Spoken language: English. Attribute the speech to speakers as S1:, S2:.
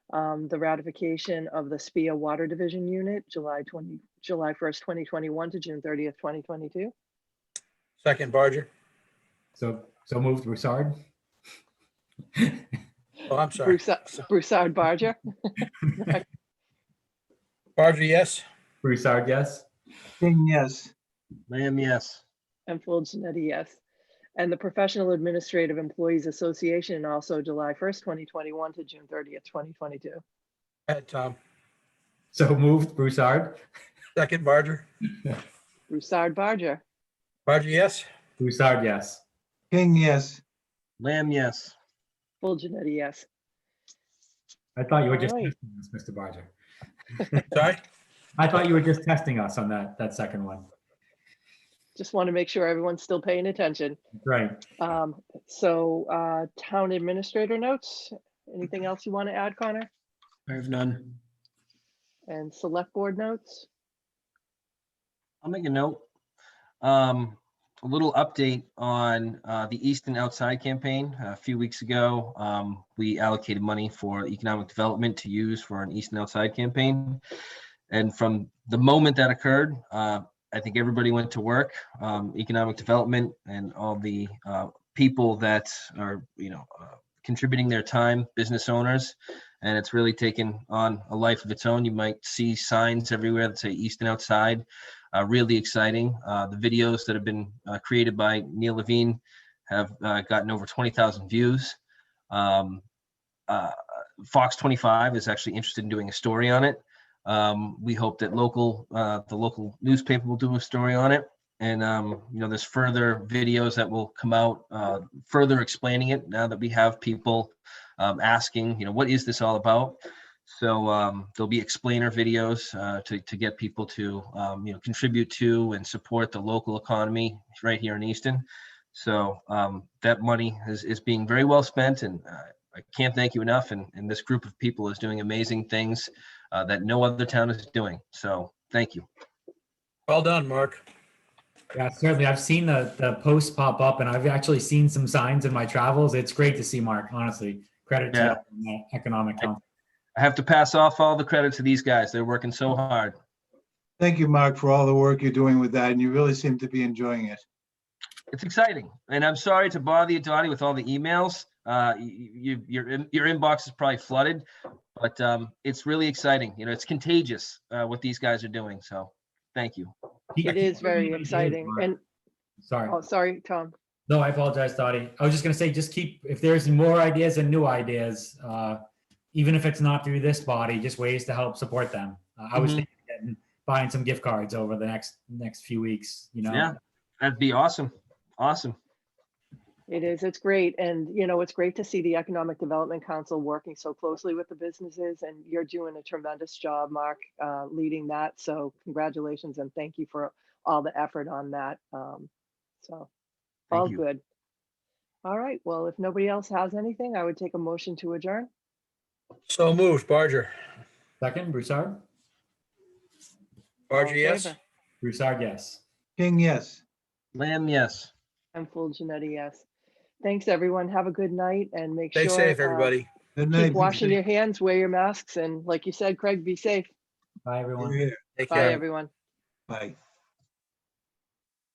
S1: um, the ratification of the SPIA Water Division Unit, July 20, July 1st, 2021 to June 30th, 2022.
S2: Second, Barger.
S3: So, so moved Broussard?
S2: Oh, I'm sorry.
S1: Broussa- Broussard uh, Barger,
S2: Barger, yes.
S3: Broussard, yes?
S4: King, yes. Lamb, yes.
S1: and Full Janetti, yes. E And the Professional Administrative Employees Association, also July 1st, 2021 to June 30th, 2022.
S2: Go ahead, Tom.
S3: So moved Broussard?
S2: Second, Barger.
S1: Broussard Barger,
S2: Barger, yes.
S3: Broussard, yes.
S4: King, yes. Lamb, yes.
S1: Full E Janetti, yes.
S3: I thought you were just
S1: All right.
S3: testing us, Mr. Barger.
S2: Sorry.
S3: I thought you were just testing us on that, that second one.
S1: Just want to make sure everyone's still paying attention.
S3: Right.
S1: Um, so, uh, town administrator notes, anything else you want to add, Connor?
S4: Mm-hmm. I have none.
S1: And select board notes?
S5: I'll make a note. Um, a little update on, uh, the Easton Outside campaign. A few weeks ago, um, we allocated money for economic development to use for an Easton Outside campaign. And from the moment that occurred, uh, I think everybody went to work, um, economic development and all the, uh, people that are, you know, uh, contributing their time, business owners. And it's really taken on a life of its own. You might see signs everywhere that say Easton Outside uh, really exciting. Uh, the videos that have been uh, created by Neil Levine have uh, gotten over 20,000 views. Um, uh, Fox 25 is actually interested in doing a story on it. Um, we hope that local, uh, the local newspaper will do a story on it. And um, you know, there's further videos that will come out, uh, further explaining it now that we have people um, asking, you know, what is this all about? So um, there'll be explainer videos uh, to, to get people to, um, you know, contribute to and support the local economy right here in Easton. So um, that money is, is being very well spent and uh, I can't thank you enough. And, and this group of people is doing amazing things uh, that no other town is doing. So thank you.
S2: Well done, Mark.
S3: Yeah, certainly. I've seen the, the posts pop up and I've actually seen some signs in my travels. It's great to see Mark, honestly. Credit
S5: Yeah.
S3: to you on that economic. council.
S5: I have to pass off all the credit to these guys. They're working so hard.
S4: Thank you, Mark, for all the work you're doing with that, and you really seem to be enjoying it.
S5: It's exciting, and I'm sorry to bother you, Dottie, with all the emails. Uh, you, you, your in- your inbox is probably flooded, but um, it's really exciting. You know, it's contagious uh, what these guys are doing. So, thank you.
S3: He- I
S1: It
S3: can't
S1: is very
S3: remember his name,
S1: exciting.
S3: Mark.
S1: And,
S3: Sorry.
S1: oh, sorry, Tom.
S3: No, I apologize, Dottie. I was just gonna say, just keep, if there's more ideas and new ideas, uh, even if it's not through this body, just ways to help support them. Uh, I was
S5: Mhm.
S3: thinking of getting- buying some gift cards over the next, next few weeks, you know?
S5: Yeah. That'd be awesome. Awesome.
S1: It is, it's great. And, you know, it's great to see the Economic Development Council working so closely with the businesses and you're doing a tremendous job, Mark, uh, leading that. So congratulations and thank you for all the effort on that. Um, so,
S5: Thank
S1: all
S5: you.
S1: good. All right, well, if nobody else has anything, I would take a motion to adjourn.
S2: So moved, Barger.
S3: Second, Broussard?
S1: All
S2: Barger,
S1: in
S2: yes.
S1: favor?
S3: Broussard, yes.
S4: King, yes.
S5: Lamb, yes.
S1: And full Janetti, yes. Thanks, everyone. Have a good night and make sure.
S2: Stay safe,
S1: uh,
S2: everybody.
S4: Good night.
S1: Keep washing your hands, wear your masks, and like you said, Craig, be safe.
S3: Bye, everyone.
S4: You're here.
S2: Take
S1: Bye,
S2: care.
S1: everyone.
S4: Bye.